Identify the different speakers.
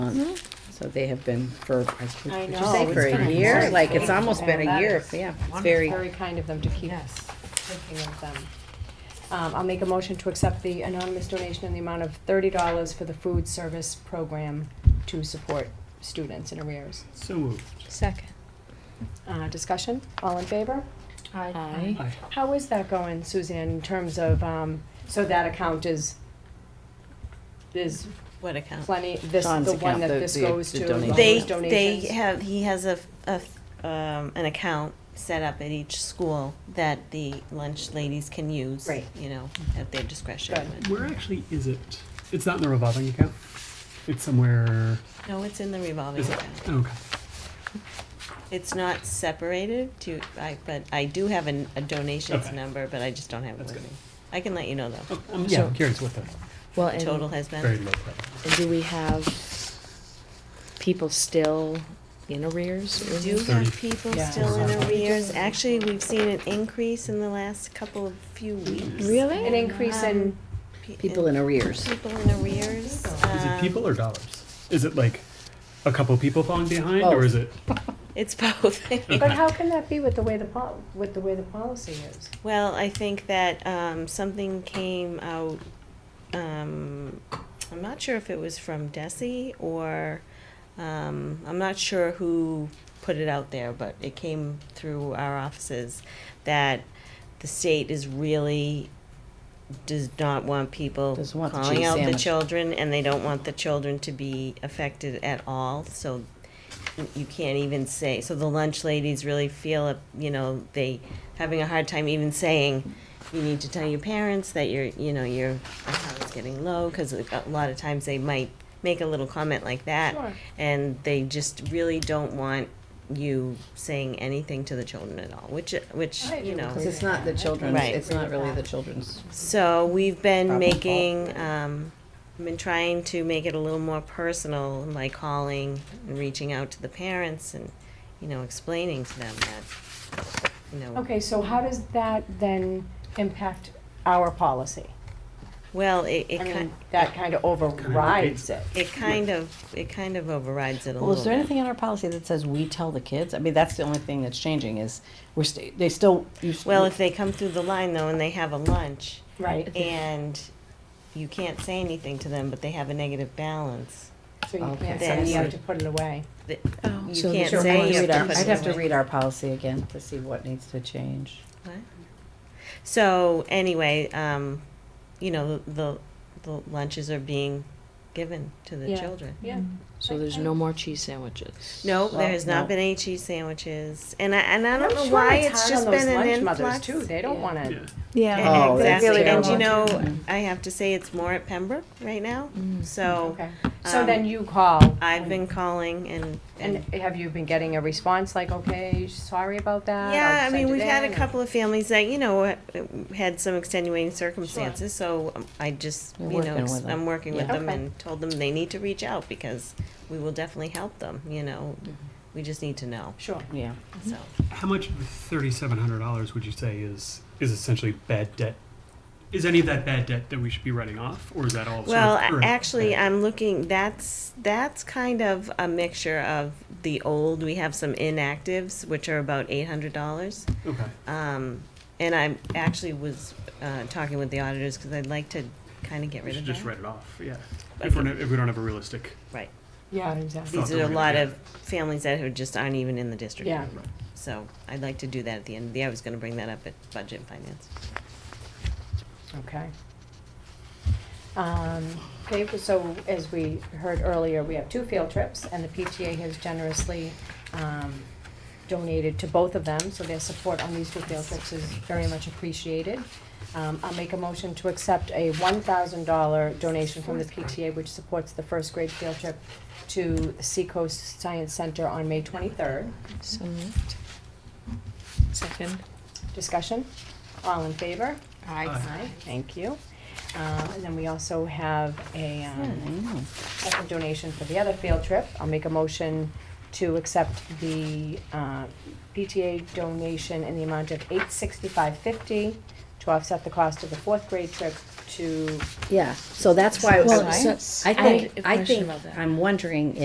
Speaker 1: month. So they have been for, I was-
Speaker 2: I
Speaker 1: what'd you
Speaker 2: know,
Speaker 1: say,
Speaker 2: it's
Speaker 1: for
Speaker 2: been
Speaker 1: a
Speaker 2: a
Speaker 1: year?
Speaker 2: long
Speaker 1: Like, it's
Speaker 2: time.
Speaker 1: almost been a
Speaker 2: That
Speaker 1: year,
Speaker 2: is
Speaker 1: yeah. It's
Speaker 2: It's
Speaker 1: very,
Speaker 2: very kind of them to keep
Speaker 3: Yes.
Speaker 2: thinking of them. Um, I'll make a motion to accept the anonymous donation in the amount of thirty dollars for the food service program to support students in arrears.
Speaker 4: So moved.
Speaker 5: Second.
Speaker 2: Uh, discussion, all in favor?
Speaker 5: Aye.
Speaker 4: Aye.
Speaker 2: How is that going, Suzanne, in terms of, um, so that account is, is
Speaker 6: What account?
Speaker 2: plenty, this,
Speaker 1: Don's
Speaker 2: the one
Speaker 1: account,
Speaker 2: that
Speaker 1: the-
Speaker 2: this
Speaker 1: the-
Speaker 2: goes
Speaker 1: the
Speaker 2: to, the
Speaker 1: donation.
Speaker 6: They, they
Speaker 2: donations?
Speaker 6: have, he has a, a, um, an account set up at each school that the lunch ladies can use.
Speaker 2: Right.
Speaker 6: You know, at their discretion.
Speaker 2: Good.
Speaker 4: Where actually is it? It's not in the revolving account. It's somewhere.
Speaker 6: No, it's in the revolving
Speaker 4: Is it? oh,
Speaker 6: account.
Speaker 4: Okay.
Speaker 6: It's not separated to, I, but I do have an, a donations
Speaker 4: Okay.
Speaker 6: number, but I just don't have it
Speaker 4: That's
Speaker 6: with me.
Speaker 4: good.
Speaker 6: I can let you know though.
Speaker 4: Oh, I'm, yeah, I'm
Speaker 5: So-
Speaker 4: curious what the
Speaker 5: Well,
Speaker 6: The total
Speaker 5: and
Speaker 6: has
Speaker 4: very
Speaker 6: been.
Speaker 4: low level.
Speaker 5: do we have people still in arrears?
Speaker 6: We do
Speaker 4: Thirty.
Speaker 6: have people
Speaker 2: Yeah.
Speaker 6: still in
Speaker 4: Wow.
Speaker 6: arrears. Actually, we've seen an increase in the last couple of few weeks. Um,
Speaker 5: Really?
Speaker 2: An increase in,
Speaker 6: Pe-
Speaker 1: people in arrears.
Speaker 6: People in arrears.
Speaker 4: Is
Speaker 6: um,
Speaker 4: it people or dollars? Is it like a couple people falling behind, or
Speaker 1: Both.
Speaker 4: is it?
Speaker 6: um, It's both.
Speaker 2: but how can that be with the way the pol, with the way the policy is?
Speaker 6: Well, I think that um, something came out. Um, I'm not sure if it was from Desi or um, I'm not sure who put it out there, but it came through our offices that the state is really does not want people
Speaker 1: Doesn't want the
Speaker 6: calling
Speaker 1: cheese
Speaker 6: out the
Speaker 1: sandwich.
Speaker 6: children, and they don't want the children to be affected at all. So you can't even say so the lunch ladies really feel uh, you know they having a hard time even saying you need to tell your parents that your you know your account's getting low because a lot of times they might make a little comment like that
Speaker 2: Sure.
Speaker 6: and they just really don't want you saying anything to the children at all which which
Speaker 2: I
Speaker 6: you
Speaker 2: do
Speaker 6: know
Speaker 1: Because it's not the children's,
Speaker 6: Right.
Speaker 1: it's not really the children's.
Speaker 6: so we've been
Speaker 1: Problem solved.
Speaker 6: making, um, been trying to make it a little more personal by calling and reaching out to the parents and, you know, explaining to them that, you know,
Speaker 2: Okay, so how does that then impact our policy?
Speaker 6: well, it, it
Speaker 2: I mean,
Speaker 6: kind,
Speaker 2: that kind of overrides it.
Speaker 6: it kind of, it kind of overrides it a little bit.
Speaker 1: Well, is there anything in our policy that says we tell the kids? I mean, that's the only thing that's changing is we're, sta- they still, you. s-
Speaker 6: Well, if they come through the line though and they have a lunch
Speaker 2: Right.
Speaker 6: and you can't say anything to them, but they have a negative balance,
Speaker 2: So you
Speaker 1: Okay.
Speaker 2: can't, then you have
Speaker 6: Then-
Speaker 2: to put it away.
Speaker 6: that
Speaker 5: Oh.
Speaker 6: you
Speaker 1: So
Speaker 6: can't
Speaker 1: sure,
Speaker 6: say.
Speaker 1: I'd
Speaker 6: you
Speaker 1: read
Speaker 6: have
Speaker 1: our-
Speaker 6: to put
Speaker 1: I'd
Speaker 6: it
Speaker 1: have to
Speaker 6: away.
Speaker 1: read our policy again to see what needs to change.
Speaker 6: So anyway, um, you know, the, the lunches are being given to the
Speaker 2: Yeah.
Speaker 6: children.
Speaker 2: Yeah.
Speaker 5: So there's no more cheese sandwiches?
Speaker 6: No, there has not
Speaker 1: no.
Speaker 6: been any cheese sandwiches, and I and I
Speaker 2: I'm
Speaker 6: don't know
Speaker 2: sure
Speaker 6: why
Speaker 2: hard
Speaker 6: it's just
Speaker 2: on those
Speaker 6: been an
Speaker 2: lunch
Speaker 6: influx.
Speaker 2: mothers, Too, they don't
Speaker 5: Yeah.
Speaker 2: wanna.
Speaker 4: Yeah.
Speaker 6: E-
Speaker 3: Yeah.
Speaker 1: Oh, that's
Speaker 6: exactly, and
Speaker 1: terrible.
Speaker 6: you know,
Speaker 1: Mhm.
Speaker 6: I have to say it's more at Pembroke right now.
Speaker 5: Mm.
Speaker 6: So
Speaker 2: Oh, Okay, so
Speaker 6: um,
Speaker 2: then you call.
Speaker 6: I've been calling and
Speaker 2: And
Speaker 6: and.
Speaker 2: have you been getting a response like, okay, sorry about that?
Speaker 6: Yeah,
Speaker 2: I'll
Speaker 6: I
Speaker 2: send
Speaker 6: mean,
Speaker 2: it
Speaker 6: we've had a
Speaker 2: in," or-
Speaker 6: couple of families that, you know, uh, had some extenuating circumstances, so um, I just,
Speaker 1: You're
Speaker 6: you know,
Speaker 1: working
Speaker 6: ex-
Speaker 1: with them.
Speaker 6: I'm working with
Speaker 1: Yeah.
Speaker 6: them
Speaker 2: Okay.
Speaker 6: and told them they need to reach out because we will definitely help them, you know. We just need to know,
Speaker 2: Sure.
Speaker 1: Yeah.
Speaker 6: so.
Speaker 4: How much of thirty-seven hundred dollars would you say is is essentially bad debt? Is any of that bad debt that we should be writing off, or is that all?
Speaker 6: Well,
Speaker 4: sort of,
Speaker 6: a-
Speaker 4: or-
Speaker 6: actually, I'm looking, that's, that's kind of a mixture of the old, we have some inactives, which are about eight hundred dollars.
Speaker 4: Okay.
Speaker 6: Um, and I actually was, uh, talking with the auditors, cause I'd like to kinda get
Speaker 4: We
Speaker 6: rid
Speaker 4: should
Speaker 6: of
Speaker 4: just
Speaker 6: that.
Speaker 4: write it off. Yeah.
Speaker 6: But-
Speaker 4: If we're not, if we don't have a realistic.
Speaker 6: Right.
Speaker 2: Yeah, exactly.
Speaker 6: These
Speaker 4: thought
Speaker 6: are a
Speaker 4: that we-
Speaker 6: lot
Speaker 4: yeah.
Speaker 6: of families that who just aren't even in the district.
Speaker 2: Yeah.
Speaker 6: So I'd like to do that at the end of the year. I was gonna bring that up at budget and finance.
Speaker 2: Okay. Um, okay, so as we heard earlier, we have two field trips and the PTA has generously, um, donated to both of them, so their support on these two field trips is very much appreciated. Um, I'll make a motion to accept a one thousand dollar donation from the PTA, which supports the first grade field trip to Seacoast Science Center on May twenty-third.
Speaker 5: So moved. Second.
Speaker 2: Discussion? All in favor?
Speaker 4: Aye.
Speaker 2: Thank you. Um, and then we also have a, um, second donation for the other field trip. I'll make a motion to accept the, uh, PTA donation in the amount of eight sixty-five fifty to offset the cost of the fourth grade trip to
Speaker 1: Yeah, so that's why,
Speaker 5: Well,
Speaker 1: so-
Speaker 5: so
Speaker 1: I think,
Speaker 5: I have a
Speaker 1: I
Speaker 5: question
Speaker 1: think,
Speaker 5: about that.
Speaker 1: I'm wondering